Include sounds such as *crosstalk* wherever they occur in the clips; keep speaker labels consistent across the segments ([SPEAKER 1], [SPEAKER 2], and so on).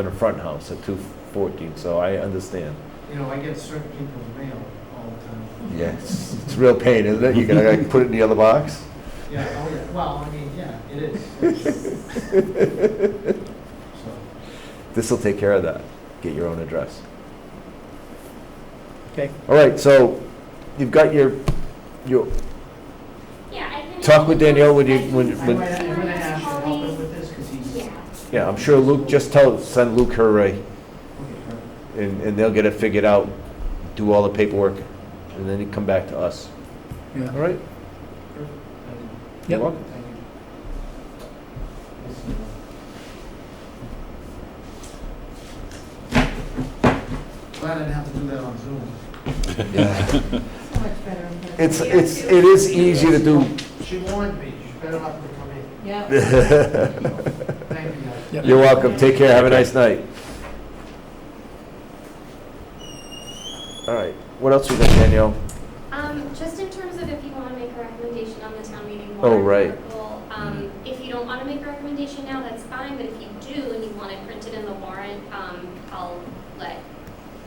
[SPEAKER 1] in a front house at two fourteen, so I understand.
[SPEAKER 2] You know, I get certain people's mail all the time.
[SPEAKER 1] Yes, it's a real pain, isn't it? You gotta like, put it in the other box?
[SPEAKER 2] Yeah, oh, yeah, well, I mean, yeah, it
[SPEAKER 1] *laughs*
[SPEAKER 2] is. So,
[SPEAKER 1] This'll take care of that. Get your own address.
[SPEAKER 3] Okay.
[SPEAKER 1] All right, so you've got your, your,
[SPEAKER 4] Yeah, I can.
[SPEAKER 1] Talk with Danielle when you-
[SPEAKER 4] I can-
[SPEAKER 1] when-
[SPEAKER 2] I'm
[SPEAKER 1] when-
[SPEAKER 2] gonna, I'm gonna ask you to help us with this, because he's. Okay,
[SPEAKER 4] Yeah,
[SPEAKER 1] yeah, I'm sure Luke, just tell, send Luke her, uh,
[SPEAKER 2] perfect.
[SPEAKER 1] and, and they'll get it figured out, do all the paperwork, and then you come back to us.
[SPEAKER 3] Yeah.
[SPEAKER 1] All right?
[SPEAKER 2] Thank
[SPEAKER 1] You're
[SPEAKER 3] Yep.
[SPEAKER 1] welcome.
[SPEAKER 2] you. Listen, uh, Glad I didn't have to do that on Zoom.
[SPEAKER 1] Yeah.
[SPEAKER 5] So much better. in person.
[SPEAKER 1] It's, it's, it is easy to do.
[SPEAKER 2] She warned me, she's better not to come in.
[SPEAKER 5] Yeah.
[SPEAKER 1] *laughs*
[SPEAKER 2] Thank you. guys.
[SPEAKER 3] Yep.
[SPEAKER 1] You're welcome, take care, have a nice night. All right, what else we got, Danielle?
[SPEAKER 4] um, just in terms of if you wanna make a recommendation on the town meeting
[SPEAKER 1] Oh,
[SPEAKER 4] warrant
[SPEAKER 1] right.
[SPEAKER 4] article, um, if you don't wanna make a recommendation now, that's fine, but if you do and you want it printed in the warrant, um, I'll let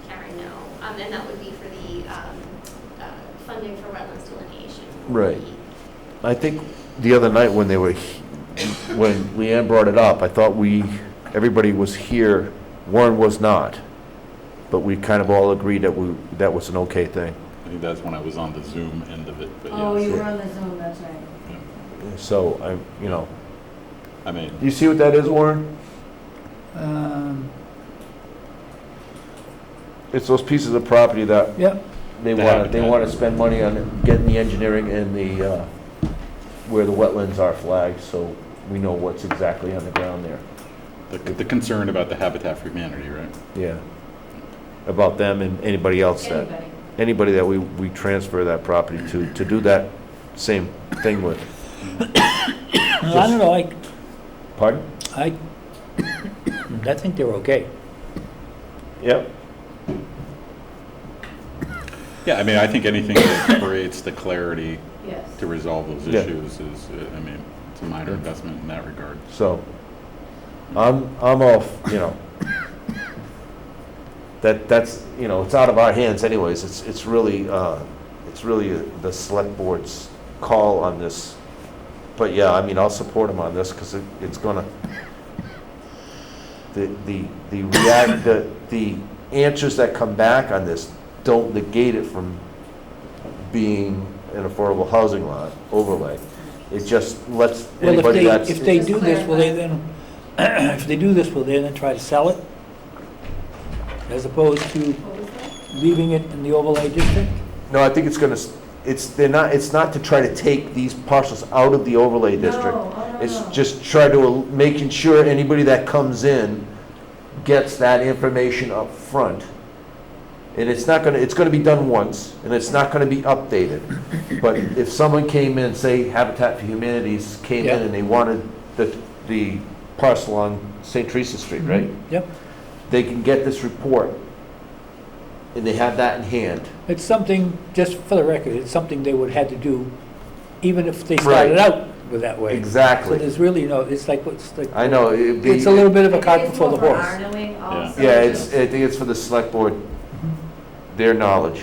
[SPEAKER 4] Karen know. Um, and that would be for the, um, uh, funding for wetlands delineation.
[SPEAKER 1] Right. I think the other night when they were, he- when Leanne brought it up, I thought we, everybody was here, Warren was not. But we kind of all agreed that we, that was an okay thing.
[SPEAKER 6] I think that's when I was on the Zoom end of it, but
[SPEAKER 5] Oh, you
[SPEAKER 6] yes.
[SPEAKER 5] were on the Zoom, that's right.
[SPEAKER 1] So, I, you know,
[SPEAKER 6] I mean,
[SPEAKER 1] you see what that is, Warren?
[SPEAKER 3] Um,
[SPEAKER 1] It's those pieces of property that
[SPEAKER 3] Yep,
[SPEAKER 1] They
[SPEAKER 6] They
[SPEAKER 1] want,
[SPEAKER 6] haven't
[SPEAKER 1] they
[SPEAKER 6] done
[SPEAKER 1] want
[SPEAKER 6] it.
[SPEAKER 1] to spend money on getting the engineering and the, uh, where the wetlands are flagged, so we know what's exactly on the ground there.
[SPEAKER 6] the, the concern about the Habitat for Humanity, right?
[SPEAKER 1] Yeah. About them and anybody else that,
[SPEAKER 5] Anybody.
[SPEAKER 1] anybody that we, we transfer that property to, to do that same thing with.
[SPEAKER 3] Well, I don't know, I,
[SPEAKER 1] Pardon?
[SPEAKER 3] I, *coughs* I think they're okay.
[SPEAKER 1] Yep.
[SPEAKER 6] Yeah, I mean, I think
[SPEAKER 5] *coughs*
[SPEAKER 6] anything that creates the clarity
[SPEAKER 5] Yes.
[SPEAKER 6] to resolve those
[SPEAKER 1] Yeah.
[SPEAKER 6] issues is, uh, I mean, it's a minor investment in that regard.
[SPEAKER 1] So, I'm, I'm off, you know. That, that's, you know, it's out of our hands anyways, it's, it's really, uh, it's really the select board's call on this. But yeah, I mean, I'll support him on this, because it, it's gonna, the, the, the react, the, the answers that come back on this don't negate it from being an affordable housing lot overlay. It just lets
[SPEAKER 3] Well, if
[SPEAKER 1] anybody
[SPEAKER 3] they,
[SPEAKER 1] that's.
[SPEAKER 3] if they
[SPEAKER 5] Just
[SPEAKER 3] do this, will they then, *coughs* if they do this, will they then try to sell it? As opposed to
[SPEAKER 5] What was that?
[SPEAKER 3] leaving it in the overlay district?
[SPEAKER 1] No, I think it's gonna, s- it's, they're not, it's not to try to take these parcels out of the overlay district.
[SPEAKER 5] No, oh, no,
[SPEAKER 1] It's
[SPEAKER 5] no.
[SPEAKER 1] just try to, el- making sure anybody that comes in gets that information up front. And it's not gonna, it's gonna be done once, and it's not gonna be updated. But if someone came in, say Habitat for Humanities came in
[SPEAKER 3] Yeah.
[SPEAKER 1] and they wanted the, the parcel on St. Teresa Street,
[SPEAKER 3] Mm-hmm.
[SPEAKER 1] right?
[SPEAKER 3] Yep,
[SPEAKER 1] They can get this report, and they have that in hand.
[SPEAKER 3] it's something, just for the record, it's something they would have to do, even if they
[SPEAKER 1] Right.
[SPEAKER 3] started out with that way. So
[SPEAKER 1] Exactly.
[SPEAKER 3] there's really no, it's like, it's like,
[SPEAKER 1] I know, it'd be.
[SPEAKER 3] it's a little bit of a
[SPEAKER 5] It
[SPEAKER 3] cart
[SPEAKER 5] is
[SPEAKER 3] before the
[SPEAKER 5] more for
[SPEAKER 3] horse.
[SPEAKER 5] our knowing also.
[SPEAKER 1] Yeah, it's, I think it's for the select board, their knowledge,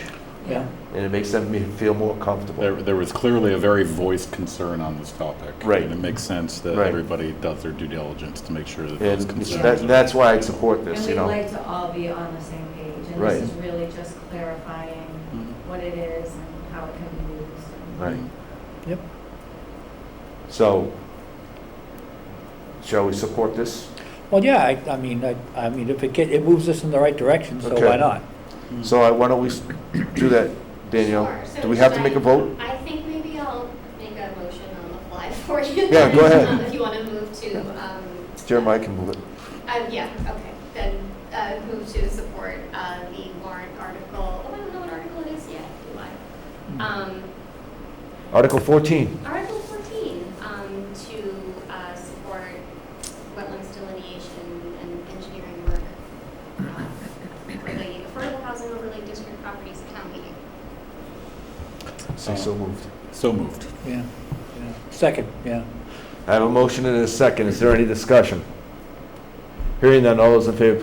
[SPEAKER 3] Yeah,
[SPEAKER 1] and it makes them me- feel more
[SPEAKER 6] There,
[SPEAKER 1] comfortable.
[SPEAKER 6] there was clearly a very voiced concern on this topic.
[SPEAKER 1] Right.
[SPEAKER 6] And it makes sense that
[SPEAKER 1] Right.
[SPEAKER 6] everybody does their due diligence to make sure that
[SPEAKER 1] And
[SPEAKER 6] those
[SPEAKER 1] it's-
[SPEAKER 6] concerns.
[SPEAKER 1] that,
[SPEAKER 6] are-
[SPEAKER 1] that's why I support
[SPEAKER 5] And
[SPEAKER 1] this,
[SPEAKER 5] we'd
[SPEAKER 1] you know?
[SPEAKER 5] like to all be on the same page. And
[SPEAKER 1] Right.
[SPEAKER 5] this is really just clarifying
[SPEAKER 6] Mhm.
[SPEAKER 5] what it is and how it can be used. and-
[SPEAKER 1] Right.
[SPEAKER 6] Mm-hmm.
[SPEAKER 3] Yep.
[SPEAKER 1] So, shall we support this?
[SPEAKER 3] well, yeah, I, I mean, I, I mean, if it get, it moves us in the right direction, so
[SPEAKER 1] Okay.
[SPEAKER 3] why not?
[SPEAKER 1] So I, why don't we s- do that, Danielle?
[SPEAKER 4] Sure. So
[SPEAKER 1] Do we have to
[SPEAKER 4] should
[SPEAKER 1] make a
[SPEAKER 4] I-
[SPEAKER 1] vote?
[SPEAKER 4] I think maybe I'll make a motion on the fly *laughs* for you.
[SPEAKER 1] Yeah, go ahead.
[SPEAKER 4] Um, If you want to move to, um.
[SPEAKER 1] Jeremiah can move it.
[SPEAKER 4] Uh, yeah, okay, then, uh, move to support, uh, the warrant article, oh, I don't know what article it is yet, do I? Um,
[SPEAKER 1] Article fourteen,
[SPEAKER 4] Article fourteen, um, to, uh, support wetlands delineation and engineering work uh, for the affordable housing overlay district properties of town meeting.
[SPEAKER 1] Say so moved.
[SPEAKER 6] So moved.
[SPEAKER 3] Yeah, yeah. Second, yeah.
[SPEAKER 1] I have a motion and a second, is there any discussion? Hearing none, all those in favor,